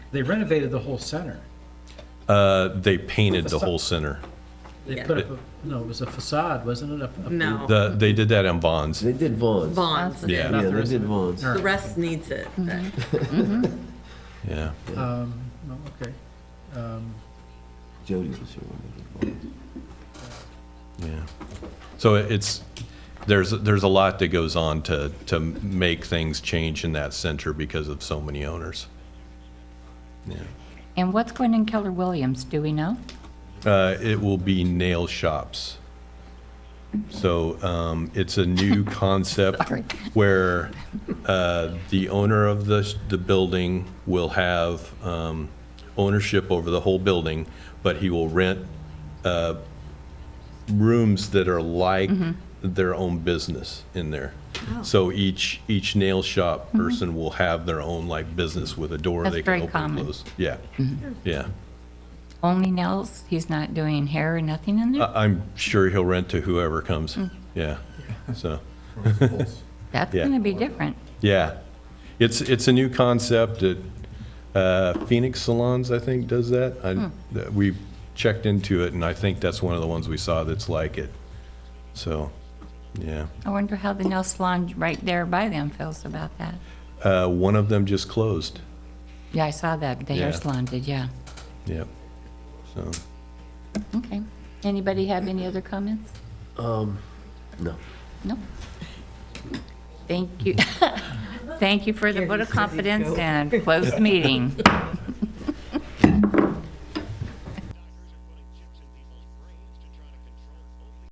They renovated the whole center. Uh, They painted the whole center. They Yeah. put up, a- no, it was a facade, wasn't it? Up- up- No. The- They did that on Bonds. They did Vaughn's. Yeah. Bonds. Mm-hmm. Yeah, Not the they rest did of it. Vaughn's. All The right. rest needs it. Yeah. Um, no, okay. Um, Jody was here when they did Vaughn's. Yeah. So it's, there's, there's a lot that goes on to, to make things change in that center because of so many owners. And what's going in Keller Williams, do we know? Uh, It will be nail shops. So um, it's a new concept Sorry. where uh, the owner of the, the building will have um, ownership over the whole building, but he will rent uh, rooms that are like Mm-hmm. their own business in there. Oh. So each, each nail shop person will have their own like business with a door Mm-hmm. That's they very can open and common. Mm-hmm. close. Yeah, yeah. Only nails, he's not doing hair or nothing in there? I- I'm sure he'll rent to whoever comes. Yeah. So, That's yeah. going to be different. yeah. It's, it's a new concept that uh, Phoenix Salons, I think, does that. I- that We checked into it and I think that's one of the ones we saw that's like it. So, yeah. I wonder how the nail salon right there by them feels about that. Uh, One of them just closed. Yeah, I saw that, the hair Yeah. salon did, yeah. Yep. So, Okay. Anybody have any other comments? No. No? Thank you. Thank you for the vote of confidence and closed meeting.